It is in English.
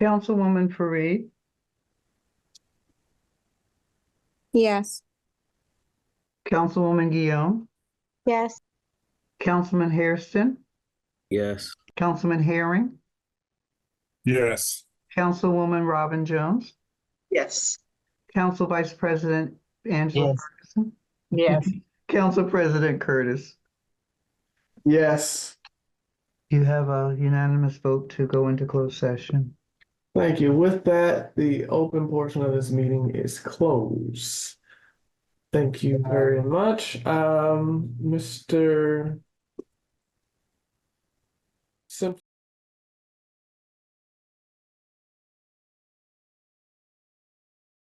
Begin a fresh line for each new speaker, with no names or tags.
Councilwoman Fareed,
Yes.
Councilwoman Guillaume,
Yes.
Councilman Hairston,
Yes.
Councilman Herring,
Yes.
Councilwoman Robin Jones,
Yes.
Council Vice President Angela
Yes.
Ferguson,
Yes.
Council President Curtis.
Yes.
You have a unanimous vote to go into closed session.
Thank you. With that, the open portion of this meeting is closed. Thank you very much. Um, Mr.